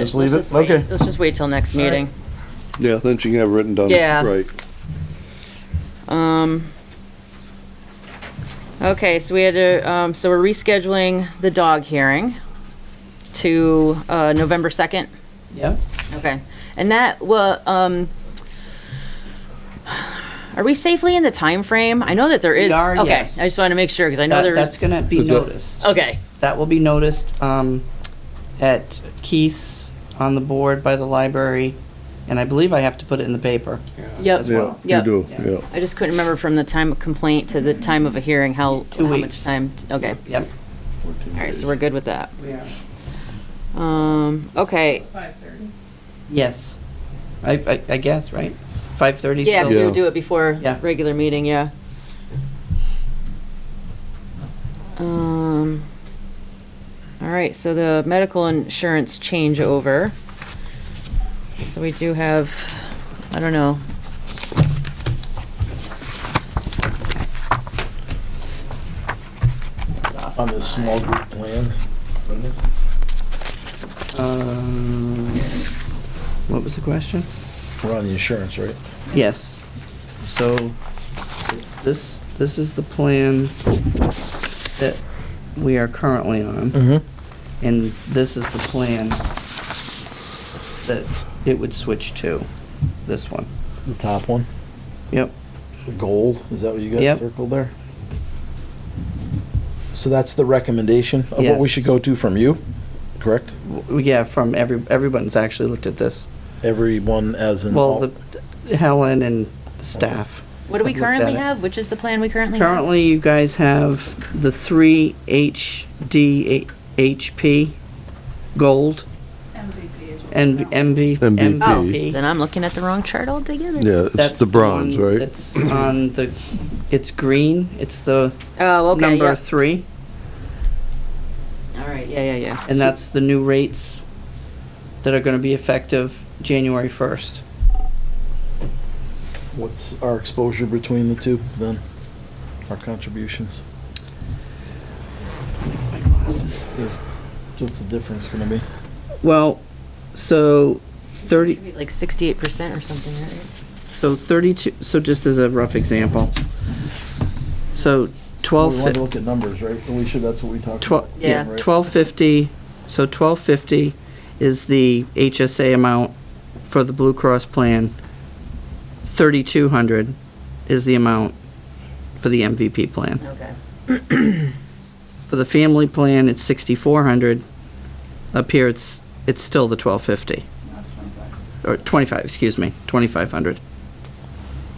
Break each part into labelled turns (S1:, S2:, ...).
S1: Just leave
S2: Let's
S1: it,
S2: just wait-
S1: okay.
S2: Let's just wait till next meeting.
S3: Yeah, then she can have it written down.
S2: Yeah.
S3: Right.
S2: Um, okay, so we had to, um, so we're rescheduling the dog hearing to, uh, November 2nd?
S1: Yeah.
S2: Okay. And that, well, um, are we safely in the time frame? I know that there
S1: We
S2: is.
S1: are,
S2: okay,
S1: yes.
S2: I just want to make sure, because I know
S1: That,
S2: there's.
S1: that's gonna be
S3: Is that-
S1: noticed.
S2: Okay,
S1: That will be noticed, um, at Keith's on the board by the library, and I believe I have to put it in the paper.
S2: yep.
S1: As well.
S3: You
S2: Yep.
S3: do,
S1: Yeah.
S3: yeah.
S2: I just couldn't remember from the time of complaint to the time of a hearing, how,
S1: Two
S2: how much
S1: weeks.
S2: time, okay.
S1: Yep.
S2: All right, so we're good with that.
S1: We are.
S2: Um, okay,
S1: Yes. I, I, I guess, right? Five thirty
S2: Yeah,
S1: still?
S2: we
S3: Yeah.
S2: would do it before
S1: Yeah.
S2: regular meeting, yeah. Um, all right, so the medical insurance changeover. So we do have, I don't know.
S4: on the small group plans. wasn't it?
S1: Um, what was the question?
S4: We're on the insurance, right?
S1: Yes. So this, this is the plan that we are currently on,
S4: Mm-hmm.
S1: and this is the plan that it would switch to, this one.
S4: The top one,
S1: Yep.
S4: the gold, is that what you got
S1: Yep.
S4: circled there? So that's the recommendation of what we
S1: Yes.
S4: should go to from you, correct?
S1: W- Yeah, from every, everyone's actually looked at this.
S4: Everyone as in
S1: Well,
S4: all,
S1: the, Helen and staff.
S2: What do we
S1: I've looked at
S2: currently
S1: it.
S2: have? Which is the plan we currently have?
S1: Currently, you guys have the three HD HP gold. MVP is what.
S3: MVP.
S2: Oh, then I'm looking at the wrong chart altogether.
S3: Yeah, it's the bronze,
S1: one
S3: right?
S1: That's on the, it's green, it's the
S2: Oh, okay,
S1: number
S2: yeah.
S1: three,
S2: All right, yeah, yeah, yeah.
S1: and that's the new rates that are gonna be effective January first.
S4: what's our exposure between the two then? Our contributions? Is- What's the difference gonna be?
S1: Well, so thirty,
S2: Like 68% or something, right?
S1: So 32, so just as a rough example. So
S4: We
S1: 12,
S4: want to
S1: fi-
S4: look at numbers, right? Are we sure that's what we talked
S1: Twel-
S4: about?
S2: yeah,
S4: right?
S1: 1250, so 1250 is the HSA amount for the Blue Cross plan. 3,200 is the amount for the MVP plan.
S2: Okay.
S1: For the family plan, it's 6,400. Up here, it's, it's still the 1250. Or 25, excuse me, 2,500.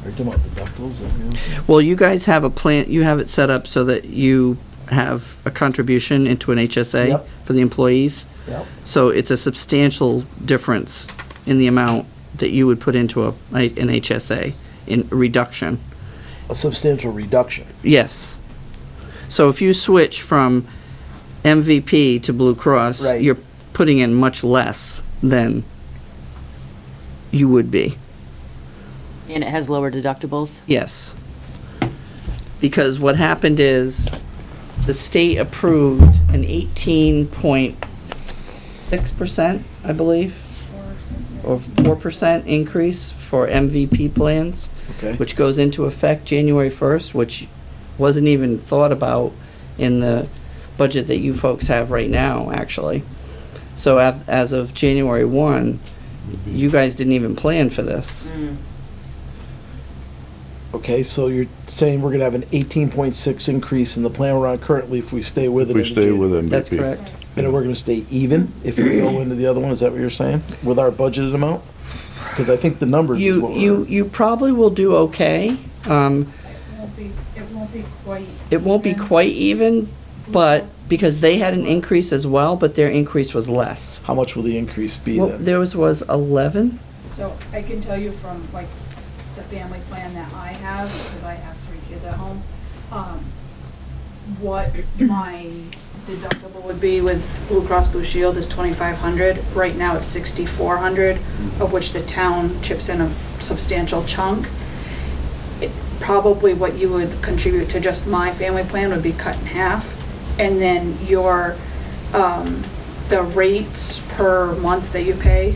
S4: Are you talking about deductibles? Is that what you're-
S1: Well, you guys have a plan, you have it set up so that you have a contribution into an HSA
S4: Yep.
S1: for the employees.
S4: Yep.
S1: So it's a substantial difference in the amount that you would put into a, an HSA in reduction.
S4: A substantial reduction.
S1: Yes. So if you switch from MVP to Blue Cross,
S4: Right.
S1: you're putting in much less than you would be.
S2: And it has lower deductibles?
S1: Yes. Because what happened is, the state approved an eighteen point six percent, I believe, or four percent increase for MVP plans,
S4: Okay.
S1: which goes into effect January first, which wasn't even thought about in the budget that you folks have right now, actually. So as, as of January one, you guys didn't even plan for this.
S4: Okay, so you're saying we're gonna have an eighteen point six increase in the plan we're on currently if we stay with it.
S3: We stay with MVP.
S1: That's correct.
S4: And we're gonna stay even if we go into the other one, is that what you're saying? With our budgeted amount? Because I think the numbers is
S1: You,
S4: what
S1: you,
S4: we're.
S1: you probably will do okay. Um,
S5: won't be, it won't be quite.
S1: it won't be
S5: even.
S1: quite even, but, because they had an increase as well, but their increase was less.
S4: How much will the increase be
S1: Well,
S4: then?
S1: theirs was eleven?
S5: So I can tell you from like the family plan that I have, because I have three kids at home, um, what my deductible would be with Blue Cross Blue Shield is twenty-five hundred. Right now it's sixty-four hundred, of which the town chips in a substantial chunk. It- Probably what you would contribute to just my family plan would be cut in half. And then your, um, the rates per month that you pay.